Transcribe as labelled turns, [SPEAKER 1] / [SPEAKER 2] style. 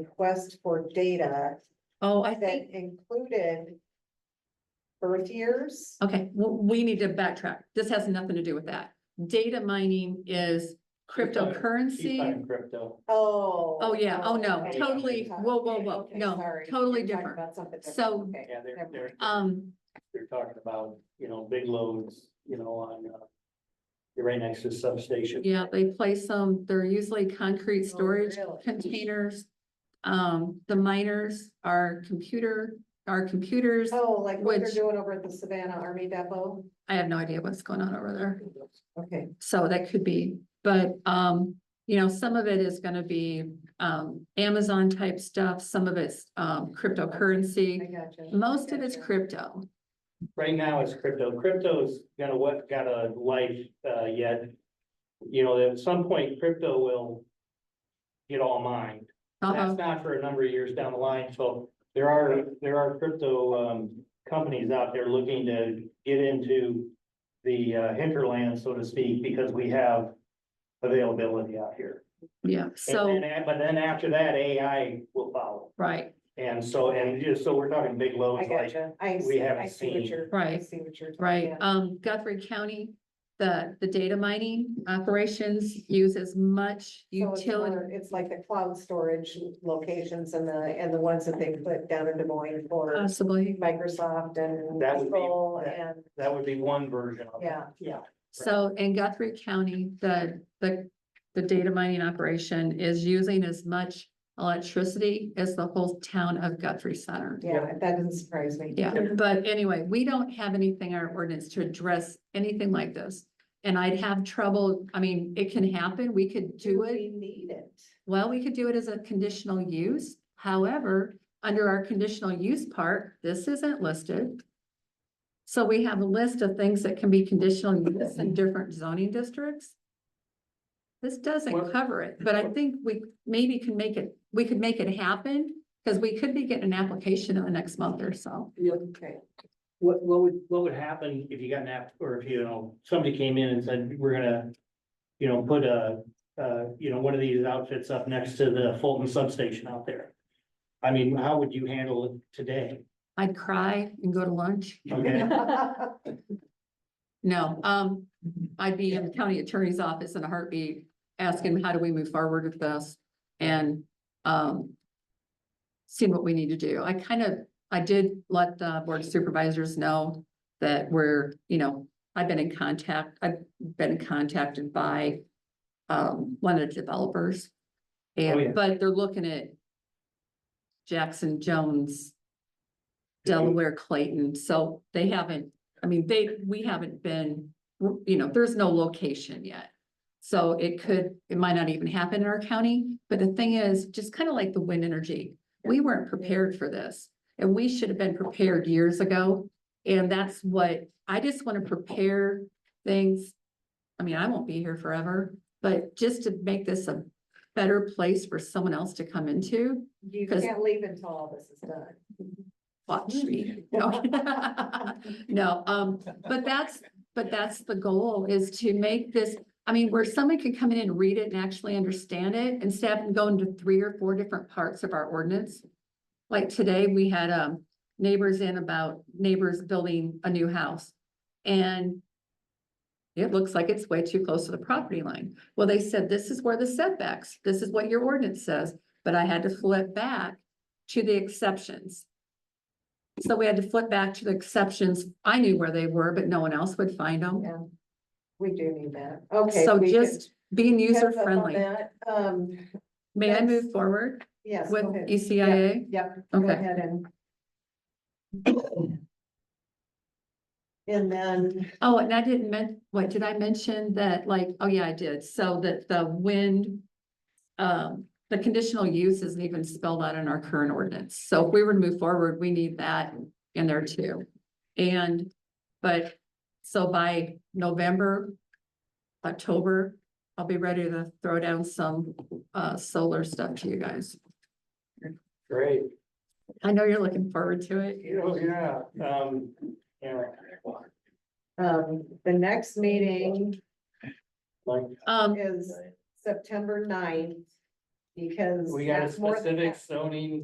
[SPEAKER 1] request for data
[SPEAKER 2] Oh, I
[SPEAKER 1] that
[SPEAKER 2] think,
[SPEAKER 1] included birth years.
[SPEAKER 2] okay, well, we need to backtrack. This has nothing to do with that. Data mining is cryptocurrency.
[SPEAKER 3] Crypto.
[SPEAKER 1] Oh.
[SPEAKER 2] Oh, yeah. Oh, no.
[SPEAKER 1] okay.
[SPEAKER 2] Totally. Whoa, whoa,
[SPEAKER 1] Okay,
[SPEAKER 2] whoa.
[SPEAKER 1] okay,
[SPEAKER 2] No,
[SPEAKER 1] sorry.
[SPEAKER 2] totally
[SPEAKER 1] You're talking
[SPEAKER 2] different.
[SPEAKER 1] about something different.
[SPEAKER 2] So-
[SPEAKER 1] Okay,
[SPEAKER 3] Yeah, they're,
[SPEAKER 1] never
[SPEAKER 3] they're,
[SPEAKER 1] mind.
[SPEAKER 2] Um,
[SPEAKER 3] they're talking about, you know, big loads, you know, on, uh, you're right next to the substation.
[SPEAKER 2] yeah, they place them, they're usually concrete
[SPEAKER 1] Oh,
[SPEAKER 2] storage
[SPEAKER 1] really?
[SPEAKER 2] containers. Um, the miners are computer, are computers.
[SPEAKER 1] Oh, like what they're
[SPEAKER 2] Which-
[SPEAKER 1] doing over at the Savannah Army Depot?
[SPEAKER 2] I have no idea what's going on over there.
[SPEAKER 1] Okay,
[SPEAKER 2] So that could be, but, um, you know, some of it is gonna be, um, Amazon type stuff, some of it's, um,
[SPEAKER 1] I
[SPEAKER 2] cryptocurrency.
[SPEAKER 1] got you.
[SPEAKER 2] Most of it's crypto.
[SPEAKER 3] Right now it's crypto. Crypto's got a, what, got a life, uh, yet. You know, at some point crypto will get all mined.
[SPEAKER 2] Uh-huh,
[SPEAKER 3] That's not for a number of years down the line, so there are, there are crypto, um, companies out there looking to get into the uh, hinterland, so to speak, because we have availability out here.
[SPEAKER 2] yeah,
[SPEAKER 3] And
[SPEAKER 2] so,
[SPEAKER 3] then- But then after that, AI will follow.
[SPEAKER 2] right,
[SPEAKER 3] And so, and just, so we're talking big
[SPEAKER 1] I
[SPEAKER 3] loads
[SPEAKER 1] got
[SPEAKER 3] like,
[SPEAKER 1] you. I
[SPEAKER 3] we
[SPEAKER 1] see, I
[SPEAKER 3] haven't
[SPEAKER 1] see what
[SPEAKER 3] seen-
[SPEAKER 1] you're. I
[SPEAKER 2] Right,
[SPEAKER 1] See what you're. talking
[SPEAKER 2] right.
[SPEAKER 1] about.
[SPEAKER 2] Um, Guthrie County, the, the data mining operations use as much
[SPEAKER 1] So it's
[SPEAKER 2] utility.
[SPEAKER 1] more- It's like the cloud storage locations and the, and the ones that they put down in Des Moines for
[SPEAKER 2] Possibly,
[SPEAKER 1] Microsoft and
[SPEAKER 3] That would be-
[SPEAKER 1] Google
[SPEAKER 3] that-
[SPEAKER 1] and,
[SPEAKER 3] that would be one version of it.
[SPEAKER 1] yeah.
[SPEAKER 3] Yeah.
[SPEAKER 2] so in Guthrie County, the, the, the data mining operation is using as much electricity as the whole town of Guthrie Center.
[SPEAKER 1] Yeah, that doesn't surprise me.
[SPEAKER 2] Yeah, but anyway, we don't have anything in our ordinance to address anything like this. And I'd have trouble, I mean, it can happen, we could do it,
[SPEAKER 1] We need it.
[SPEAKER 2] well, we could do it as a conditional use. However, under our conditional use part, this isn't listed. So we have a list of things that can be conditional use in different zoning districts. This doesn't
[SPEAKER 3] Well-
[SPEAKER 2] cover it, but I think we maybe can make it, we could make it happen, because we could be getting an application in the next month or so.
[SPEAKER 1] Okay.
[SPEAKER 3] What, what would, what would happen if you got an app, or if, you know, somebody came in and said, we're gonna, you know, put a, uh, you know, one of these outfits up next to the Fulton substation out there? I mean, how would you handle it today?
[SPEAKER 2] I'd cry and go to lunch.
[SPEAKER 3] Okay,
[SPEAKER 2] No, um, I'd be in the county attorney's office in a heartbeat, asking how do we move forward with this? And, um, seeing what we need to do. I kind of, I did let the board of supervisors know that we're, you know, I've been in contact, I've been contacted by, um, one of the developers.
[SPEAKER 3] Oh, yeah.
[SPEAKER 2] And, but they're looking at Jackson Jones, Delaware, Clayton, so they haven't I mean, they, we haven't been, you know, there's no location yet. So it could, it might not even happen in our county, but the thing is, just kind of like the wind energy, we weren't prepared for this. And we should have been prepared years ago. And that's what, I just want to prepare things. I mean, I won't be here forever, but just to make this a better place for someone else to come into,
[SPEAKER 1] You
[SPEAKER 2] 'Cause-
[SPEAKER 1] can't leave until all this is done.
[SPEAKER 2] watch me. No. No, um, but that's, but that's the goal is to make this, I mean, where someone can come in and read it and actually understand it instead of going to three or four different parts of our ordinance. Like today, we had, um, neighbors in about neighbors building a new house and it looks like it's way too close to the property line. Well, they said, this is where the setbacks, this is what your ordinance says, but I had to flip back to the exceptions. So we had to flip back to the exceptions. I knew where they were, but no one else would find them.
[SPEAKER 1] Yeah. We do need that. Okay.
[SPEAKER 2] So
[SPEAKER 1] we can-
[SPEAKER 2] just being
[SPEAKER 1] heads
[SPEAKER 2] user
[SPEAKER 1] up on
[SPEAKER 2] friendly.
[SPEAKER 1] that. Um,
[SPEAKER 2] May I
[SPEAKER 1] Yes.
[SPEAKER 2] move forward
[SPEAKER 1] yes.
[SPEAKER 2] with E
[SPEAKER 1] go ahead.
[SPEAKER 2] ECIA?
[SPEAKER 1] Yep. go
[SPEAKER 2] Okay,
[SPEAKER 1] ahead and. And then,
[SPEAKER 2] oh, and I didn't men, what, did I mention that, like, oh yeah, I did, so that the wind. Um, the conditional use isn't even spelled out in our current ordinance, so if we were to move forward, we need that in there too. And, but, so by November, October, I'll be ready to throw down some uh solar stuff to you guys.
[SPEAKER 3] great.
[SPEAKER 2] I know you're looking forward to it.
[SPEAKER 3] Oh, yeah, um, yeah.
[SPEAKER 1] um, the next meeting
[SPEAKER 3] Like,
[SPEAKER 2] Um,
[SPEAKER 1] is September 9th because.
[SPEAKER 4] We got a
[SPEAKER 1] that's more than half.
[SPEAKER 4] specific zoning